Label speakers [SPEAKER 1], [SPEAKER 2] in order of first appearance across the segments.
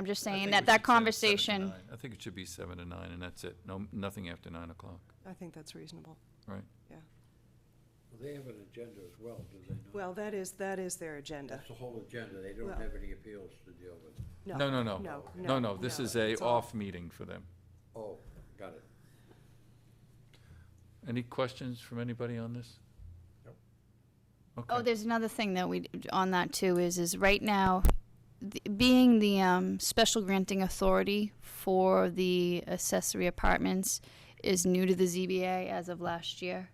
[SPEAKER 1] I'm just
[SPEAKER 2] I
[SPEAKER 1] saying
[SPEAKER 2] think
[SPEAKER 1] that
[SPEAKER 2] we
[SPEAKER 1] that
[SPEAKER 2] should say seven to
[SPEAKER 1] conversation,
[SPEAKER 2] nine. I think it should be seven to nine, and that's it. No, nothing after nine o'clock,
[SPEAKER 3] I think that's reasonable.
[SPEAKER 2] right?
[SPEAKER 4] Well, They have an agenda as well, do they not?
[SPEAKER 3] Well, that is, that is their agenda.
[SPEAKER 4] That's the whole agenda, they don't
[SPEAKER 3] Well-
[SPEAKER 4] have any appeals to deal with.
[SPEAKER 2] No, no, no.
[SPEAKER 3] No,
[SPEAKER 2] No, no, this
[SPEAKER 3] no,
[SPEAKER 2] is a
[SPEAKER 3] it's all-
[SPEAKER 2] off meeting for them.
[SPEAKER 4] Oh, got it.
[SPEAKER 2] Any questions from anybody on this?
[SPEAKER 1] oh,
[SPEAKER 2] Okay,
[SPEAKER 1] there's another thing that we, on that too, is, is right now, th- being the, um, special granting authority for the accessory apartments is new to the ZBA as of last year.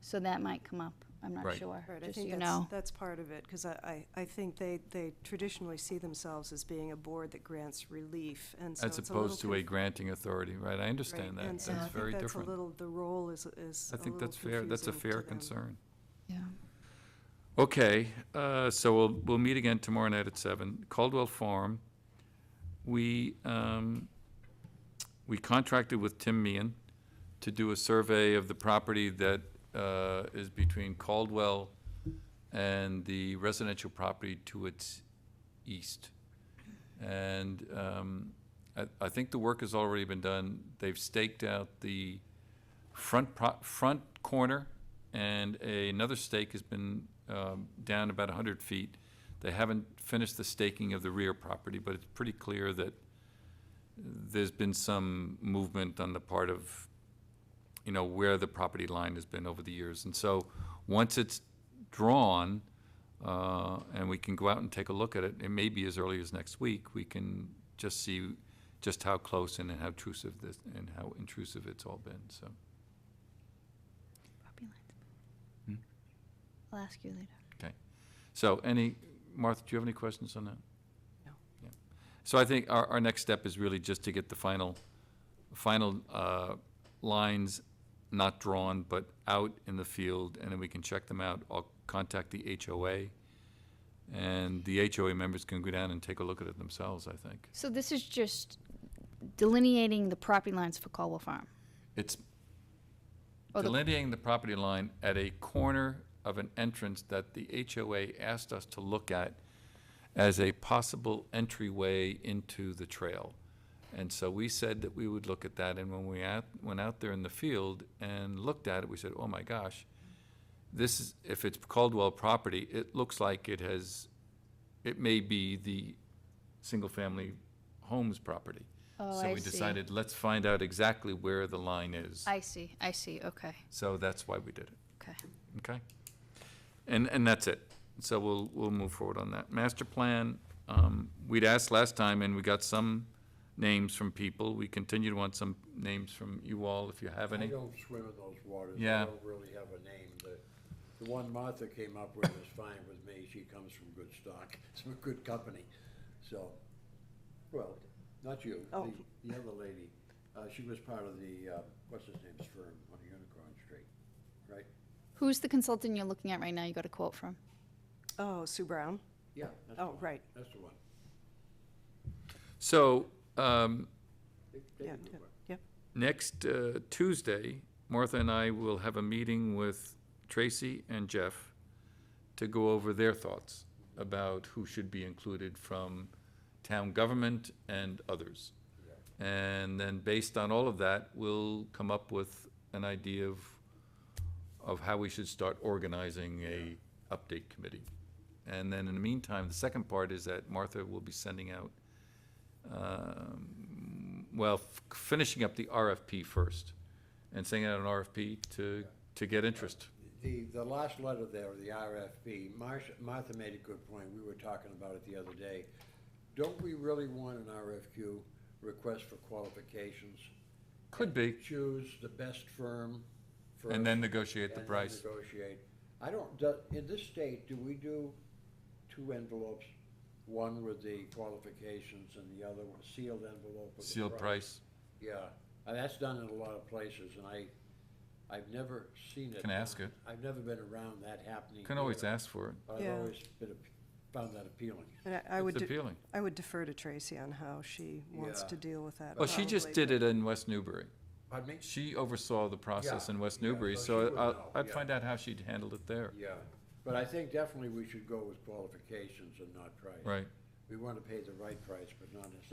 [SPEAKER 1] So that might come up. I'm not
[SPEAKER 2] Right.
[SPEAKER 1] sure,
[SPEAKER 3] Right, I
[SPEAKER 1] just so
[SPEAKER 3] think
[SPEAKER 1] you
[SPEAKER 3] that's,
[SPEAKER 1] know.
[SPEAKER 3] that's part of it, because I, I, I think they, they traditionally see themselves as being a board that grants relief, and so
[SPEAKER 2] as
[SPEAKER 3] it's a little
[SPEAKER 2] opposed to a
[SPEAKER 3] conf-
[SPEAKER 2] granting authority, right? I
[SPEAKER 3] right,
[SPEAKER 2] understand that.
[SPEAKER 3] and so I
[SPEAKER 2] That's
[SPEAKER 3] think
[SPEAKER 2] very
[SPEAKER 3] that's a
[SPEAKER 2] different.
[SPEAKER 3] little, the role is, is
[SPEAKER 2] I
[SPEAKER 3] a
[SPEAKER 2] think
[SPEAKER 3] little
[SPEAKER 2] that's fair. That's a
[SPEAKER 3] confusing
[SPEAKER 2] fair
[SPEAKER 3] to them.
[SPEAKER 2] concern.
[SPEAKER 1] Yeah.
[SPEAKER 2] Okay, uh, so we'll, we'll meet again tomorrow night at seven, Caldwell Farm. We, um, we contracted with Tim Meehan to do a survey of the property that, uh, is between Caldwell and the residential property to its east. And, um, I, I think the work has already been done. They've staked out the front pro, front corner and a- another stake has been, um, down about hundred feet. They haven't finished the staking of the rear property, but it's pretty clear that there's been some movement on the part of, you know, where the property line has been over the years. And so, once it's drawn, uh, and we can go out and take a look at it, it may be as early as next week, we can just see just how close and how intrusive this, and how intrusive it's all been, so.
[SPEAKER 1] Property lines.
[SPEAKER 2] Hmm?
[SPEAKER 1] I'll ask you later.
[SPEAKER 2] So any, Martha, do you have any questions on that?
[SPEAKER 3] No.
[SPEAKER 2] Yeah. So I think our, our next step is really just to get the final, final uh, lines not drawn, but out in the field, and then we can check them out. I'll contact the HOA, and the HOA members can go down and take a look at it themselves, I think.
[SPEAKER 1] So this is just delineating the property lines for Caldwell Farm.
[SPEAKER 2] It's
[SPEAKER 1] Oh, the-
[SPEAKER 2] delineating the property line at a corner of an entrance that the HOA asked us to look at as a possible entryway into the trail. And so we said that we would look at that, and when we out, went out there in the field and looked at it, we said, oh my gosh, this is, if it's Caldwell property, it looks like it has, it may be the single-family homes property.
[SPEAKER 1] Oh,
[SPEAKER 2] So
[SPEAKER 1] I
[SPEAKER 2] we
[SPEAKER 1] see.
[SPEAKER 2] decided, let's find out exactly where the line is.
[SPEAKER 1] I see, I see, okay,
[SPEAKER 2] So that's why we did it,
[SPEAKER 1] okay.
[SPEAKER 2] okay? And, and that's it. So we'll, we'll move forward on that. Master plan, um, we'd asked last time and we got some names from people. We continue to want some names from you all if you have
[SPEAKER 4] I
[SPEAKER 2] any.
[SPEAKER 4] don't swim in those waters.
[SPEAKER 2] Yeah.
[SPEAKER 4] I don't really have a name. The, the one Martha came up with is fine with me. She comes from good stock, some good company. So, well, not you,
[SPEAKER 3] Oh.
[SPEAKER 4] the, the other lady. Uh, she was part of the, uh, what's his name's firm on Unicorn Street, right?
[SPEAKER 1] Who's the consultant you're looking at right now you got a quote from?
[SPEAKER 3] Oh, Sue Brown?
[SPEAKER 4] Yeah. that's the
[SPEAKER 3] Oh,
[SPEAKER 4] one.
[SPEAKER 3] right.
[SPEAKER 4] That's the one.
[SPEAKER 2] So, um,
[SPEAKER 4] They- they
[SPEAKER 3] Yeah,
[SPEAKER 4] can do
[SPEAKER 3] yeah,
[SPEAKER 4] it.
[SPEAKER 3] yeah.
[SPEAKER 2] next uh, Tuesday, Martha and I will have a meeting with Tracy and Jeff to go over their thoughts about who should be included from town government and others. And then based on all of that, we'll come up with an idea of, of how we should start organizing a update committee. And then in the meantime, the second part is that Martha will be sending out um, well, f- finishing up the RFP first and sending out an RFP to, to get interest.
[SPEAKER 4] The, the last letter there, the RFP, Marsh, Martha made a good point, we were talking about it the other day. Don't we really want an RFQ, request for qualifications?
[SPEAKER 2] Could be,
[SPEAKER 4] Choose the best firm first.
[SPEAKER 2] and then negotiate
[SPEAKER 4] and
[SPEAKER 2] the
[SPEAKER 4] then
[SPEAKER 2] price.
[SPEAKER 4] Negotiate. I don't, do- in this state, do we do two envelopes? One with the qualifications and the other one sealed envelope with the
[SPEAKER 2] Sealed price.
[SPEAKER 4] yeah, and that's done in a lot of places, and I, I've never seen it.
[SPEAKER 2] Can ask it.
[SPEAKER 4] I've never been around that happening.
[SPEAKER 2] Can always
[SPEAKER 4] here,
[SPEAKER 2] ask for it.
[SPEAKER 4] But I've
[SPEAKER 3] Yeah.
[SPEAKER 4] always been, ap- found that appealing.
[SPEAKER 3] And I- I would,
[SPEAKER 2] It's
[SPEAKER 3] de-
[SPEAKER 2] appealing.
[SPEAKER 3] I would defer to Tracy on how she wants
[SPEAKER 4] Yeah.
[SPEAKER 3] to deal with that.
[SPEAKER 2] Well, she just
[SPEAKER 3] probably,
[SPEAKER 2] did
[SPEAKER 3] but-
[SPEAKER 2] it in West Newbury.
[SPEAKER 4] Pardon me?
[SPEAKER 2] She oversaw the process
[SPEAKER 4] Yeah,
[SPEAKER 2] in West
[SPEAKER 4] yeah,
[SPEAKER 2] Newbury,
[SPEAKER 4] so she
[SPEAKER 2] so
[SPEAKER 4] would know,
[SPEAKER 2] I'll- I'd
[SPEAKER 4] yeah.
[SPEAKER 2] find out how she'd handled it there.
[SPEAKER 4] Yeah, but I think definitely we should go with qualifications and not price.
[SPEAKER 2] Right,
[SPEAKER 4] We want to pay the right price, but not necessarily.